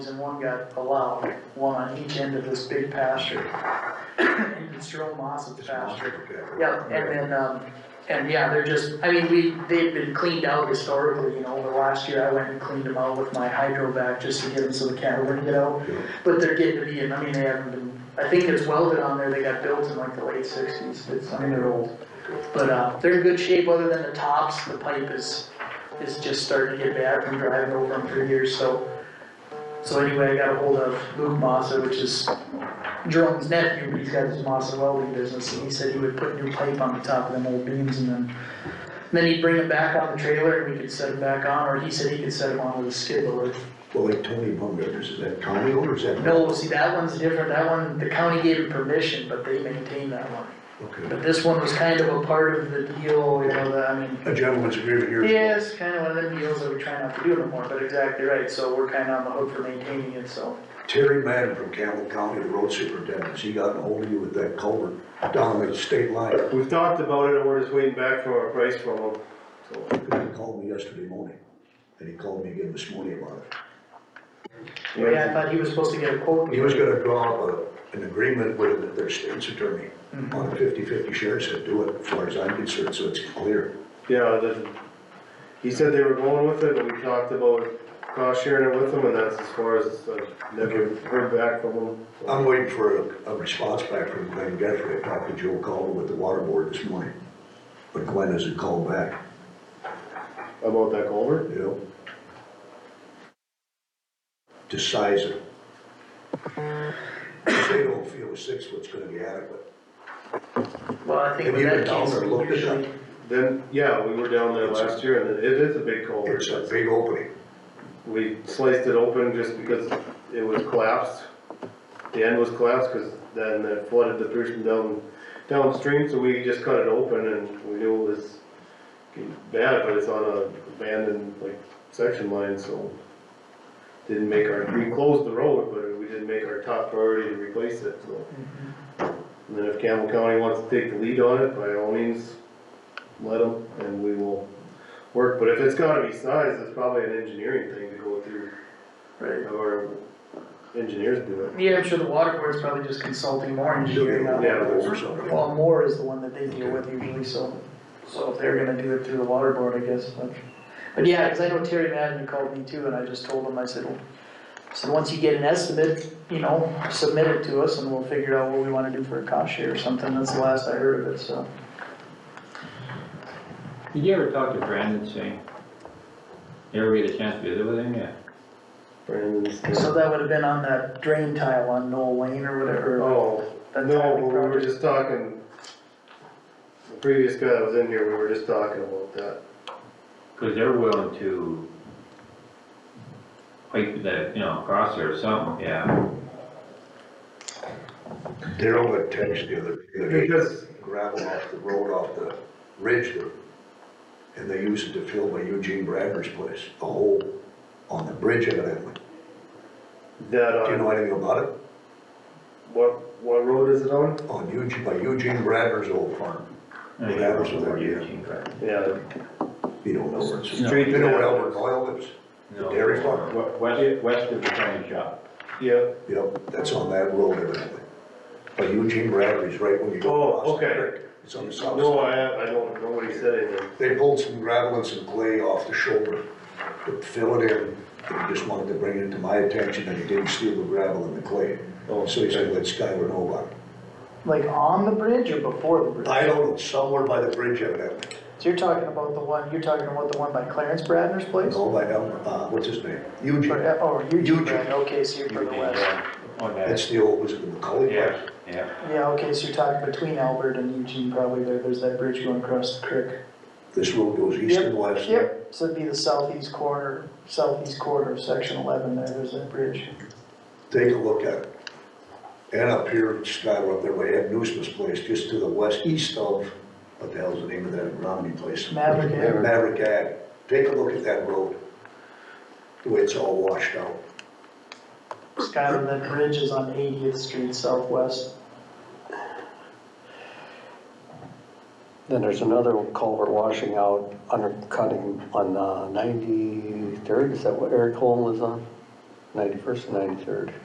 one got allowed, one on each end of this big pasture. You can throw moss at the pasture. Yeah, and then, um, and yeah, they're just, I mean, we, they've been cleaned out historically, you know, over the last year, I went and cleaned them out with my hydro vac just to get them so the cattle wouldn't get out. Yeah. But they're getting to be, and I mean, they haven't been, I think it's welded on there, they got built in like the late sixties, it's, I mean, they're old. But, uh, they're in good shape, other than the tops, the pipe is, is just starting to get bad from driving over them for years, so. So anyway, I got a hold of Luke Massa, which is Jerome's nephew, he's got his Massa welding business, and he said he would put new pipe on the top of them old beams and then, then he'd bring them back on the trailer and we could set them back on, or he said he could set them on with a skid loader. Well, like Tony Bumgarner, is that county owned or is that? No, see, that one's different, that one, the county gave him permission, but they maintained that one. Okay. But this one was kind of a part of the deal, you know, the, I mean, A gentleman's agreement here. yeah, it's kind of one of them deals that we try not to do anymore, but exactly right, so we're kind of on the hook for maintaining it, so. Terry Madden from Campbell County, the road superintendent, he got ahold of you with that culvert down the state line. We've talked about it, and we're just waiting back for a price from them, so. He called me yesterday morning, and he called me again this morning about it. Yeah, I thought he was supposed to get a quote. He was gonna draw up a- an agreement with their state's attorney Mm-hmm. on a fifty-fifty share, said do it, as far as I'm concerned, so it's clear. Yeah, the, he said they were going with it, and we talked about cost sharing it with them, and that's as far as, I've never heard back from them. I'm waiting for a, a response back from Glenn Guthrie, I talked to Joe Caldwell with the water board this morning, but Glenn hasn't called back, About that culvert? you know? To size it. If They don't feel a six foot's gonna be adequate. Well, I think Have with you that been down case, there we looked at usually, Then, yeah, we were down there last year, and it is a big culvert. It's a big opening, We sliced it open just because it was collapsed. The end was collapsed, cause then it flooded the person down, downstream, so we just cut it open and we knew it was getting bad, but it's on a abandoned, like, section line, so. Didn't make our, we closed the road, but we didn't make our top priority to replace it, so. And then if Campbell County wants to take the lead on it, by all means, let them, and we will work, but if it's gotta be sized, it's probably an engineering thing to go through, right. or engineers do it. Yeah, I'm sure the water board's probably just consulting more engineering on Yeah. it. or something. Well, Moore is the one that they deal with usually, so, so if they're gonna do it through the water board, I guess, but. But yeah, cause I know Terry Madden called me too, and I just told him, I said, well, so once you get an estimate, you know, submit it to us and we'll figure out what we wanna do for a cost share or something, that's the last I heard of it, so. Did you ever talk to Brandon Singh? You ever get a chance to visit with him yet? Brandon's. So that would've been on that drain tile on Noel Lane or whatever, or Oh, that no, tiling we were project. just talking, the previous guy that was in here, we were just talking about that. Cause they're willing to pipe the, you know, across there or something, yeah. Daryl got text the other, the other day. Because, gravel off the road, off the ridge there. And they used it to fill by Eugene Bradner's place, a hole on the bridge evidently. that, Do you uh, know anything about it? what, what road is it on? On Eugene, by Eugene Bradner's old farm. What happens with that, yeah. Yeah, You don't know where it's. No. You know where Albert Doyle lives? No. Dairy farm. We- West, west of the county shop. yeah, Yep, that's on that road evidently. By Eugene Bradner's, right when you go Oh, across the okay. creek. It's on the south no, side. I, I don't, nobody said anything. They pulled some gravel and some clay off the shoulder to fill it in. And he just wanted to bring it to my attention that he didn't steal the gravel and the clay. Oh, So he said, let Skyler know about it. Like on the bridge or before the bridge? I don't know, somewhere by the bridge evidently, So you're talking about the one, you're talking about the one by Clarence Bradner's place? all by, Elm- uh, what's his name? Or, Eugene. uh, oh, Eugene Eugene. Bradner, okay, so you're from the west. On that, That's the old, was it the McCully yeah, place? yeah. Yeah, okay, so you're talking between Albert and Eugene probably there, there's that bridge going across the creek. This road goes east and west. Yep, so it'd be the southeast corner, southeast corner of section eleven there, there's that bridge. Take a look at it. And up here, Skyler up there by Ed Newsom's place, just to the west, east of, what the hell's the name of that Romney place? Maverick Ave. Maverick Ave. Take a look at that road. The way it's all washed out. Skyler, that bridge is on Eightieth Street southwest. Then there's another culvert washing out, uh, undercutting on ninety-third, is that what Eric Holm was on? 91st and 93rd.